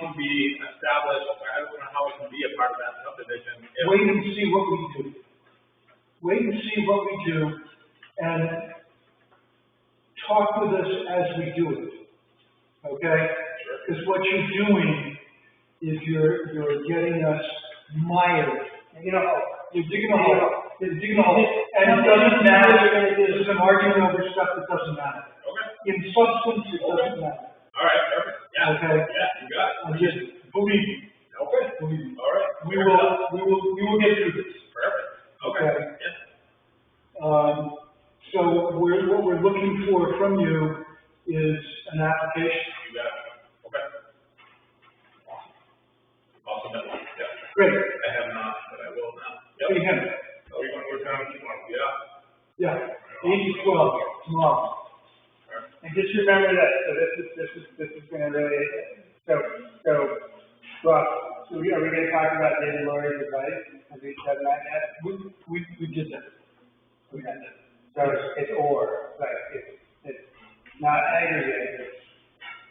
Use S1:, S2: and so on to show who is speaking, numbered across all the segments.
S1: can be established, I don't know how it can be a part of that subdivision. if-
S2: wait and see what we do. Wait and see what we do and talk with us as we do it. Okay? Because what you're doing is you're, you're getting us mired. You know, you're digging a hole, you're digging a hole. And it doesn't matter, there's an argument over stuff that doesn't matter.
S1: Okay,
S2: In substance, it doesn't matter.
S1: all right, perfect, yeah,
S2: Okay.
S1: yeah, you got it.
S2: I just, believe me,
S1: Okay,
S2: believe me.
S1: all right.
S2: We will, we will, we will get through this.
S1: Perfect, okay,
S2: Okay.
S1: yeah.
S2: Um, so we're, what we're looking for from you is an application.
S1: You got it. Okay. Awesome, yeah.
S2: Great,
S1: I have not, but I will now.
S2: we have, it.
S1: Are we going to down if you want? Yeah.
S2: yeah, eight to twelve tomorrow.
S3: And just remember that, so this is, this is, this is gonna really, so, so, well, so we- are we gonna talk about David Laurie's advice? Have we done that yet?
S2: We, we, we did that.
S3: We got it. So it's, it's or, like, it's, it's not aggregate, it's,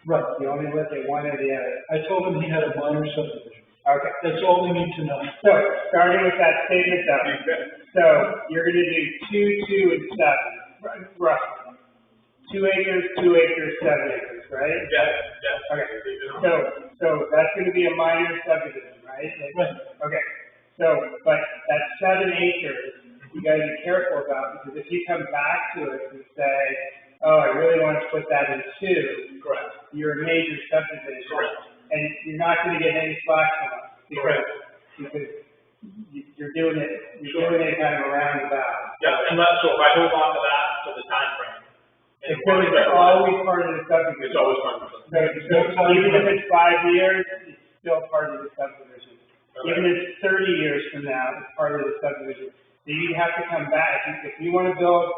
S2: Right,
S3: you only look at one or the other.
S2: I told him he had a minor subdivision.
S3: Okay,
S2: That's all we need to know.
S3: so, starting with that statement though, so you're gonna do two, two, and seven, right, roughly. Two acres, two acres, seven acres, right?
S1: Yeah, yeah.
S3: Okay,
S1: You
S3: so,
S1: know,
S3: so that's gonna be a minor subdivision, right?
S2: Right.
S3: Okay, so, but that seven acres, you gotta be careful about, because if you come back to us and say, oh, I really want to put that in two,
S1: Correct.
S3: you're a major subdivision.
S1: Correct.
S3: And you're not gonna get any slack from us. because-
S1: Correct.
S3: Because you- you're doing it, you're doing it kind of around about.
S1: Yeah, unless, so if I hold on to that to the timeframe. and
S3: It's gonna be always part of the subdivision.
S1: It's always part of the.
S3: So, so even if it's five years, it's still part of the subdivision. Even if it's thirty years from now, it's part of the subdivision. So you have to come back, If- if you wanna build,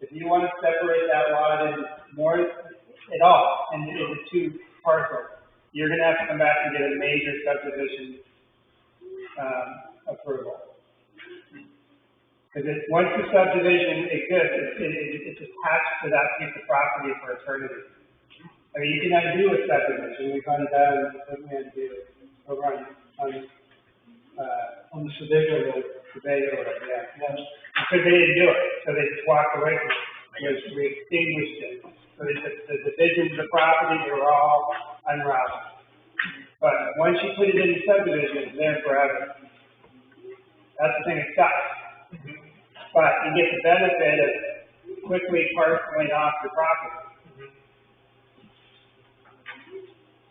S3: if you wanna separate that lot in more, at all, into, into two parcels, you're gonna have to come back and get a major subdivision, um, approval. Cause it, once the subdivision exists, it, it, it's attached to that piece of property for eternity. I mean, you can undo a subdivision, we've done that, and we undo it over on, on, um, uh,
S2: On the Sedago Road,
S3: Sebago Road, yeah.
S2: yes.
S3: Because they didn't do it, so they just walked away from it, because we extinguished it. So the, the- the divisions of property are all unraveled. But once you put it in the subdivision, it's there forever. That's the thing that sucks. But you get the benefit of quickly parceling off your property.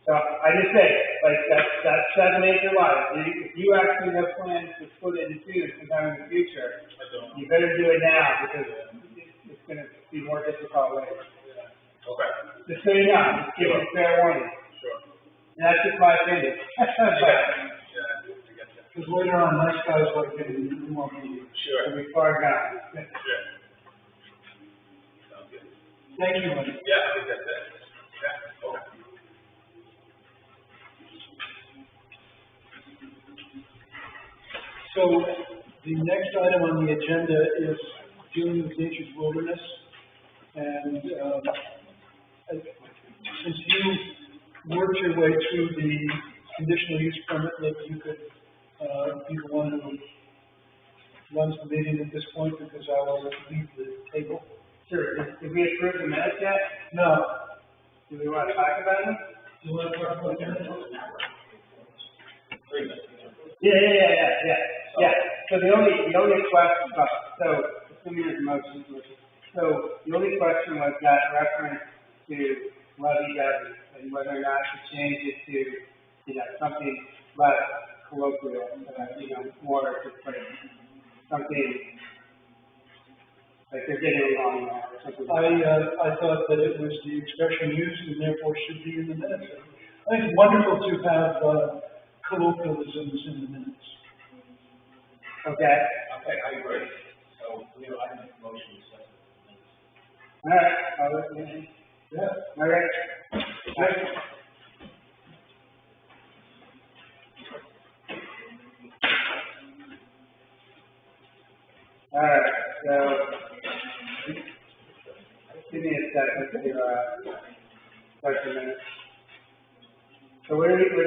S3: So I just say, like, that, that seven acre lot, if you- if you actually have plans to split it in two sometime in the future,
S1: I don't.
S3: you better do it now because it's- it's gonna be more difficult later.
S1: Okay,
S3: Just so you know, just give it fair warning.
S1: sure.
S3: And that's just my opinion.
S1: Yeah,
S3: But
S1: I guess, yeah.
S2: Because later on, nice guys like him, we want you.
S1: Sure,
S3: it'll be far gone.
S1: sure. Sounds good.
S2: Thank you, Mike.
S1: Yeah, I think that's it. Yeah, okay.
S2: So the next item on the agenda is dealing with nature's wilderness. And, um, I- since you worked your way through the conditional use permit, maybe you could, uh, be the one who runs the meeting at this point because I will leave the table.
S3: Sure, did we approve the minutes yet?
S2: No,
S3: Do we want to talk about them?
S2: do you want to talk about that?
S3: Yeah, yeah, yeah, yeah, yeah, yeah. So the only, the only question, uh, so, assuming there's a motion, so the only question was that reference to levy levy and whether or not to change it to, you know, something less colloquial, uh, you know, more just like something, like they're getting along now or something.
S2: I, uh, I thought that it was the expression used and therefore should be in the minutes. I think it's wonderful to have uh, colloquialisms in the minutes.
S3: Okay,
S4: Okay, I agree. So, you know, I make a motion to set
S3: all right, I'll listen.
S2: Yeah.
S3: All right. All right, so, give me a second to, uh, start the minutes. So where we, we're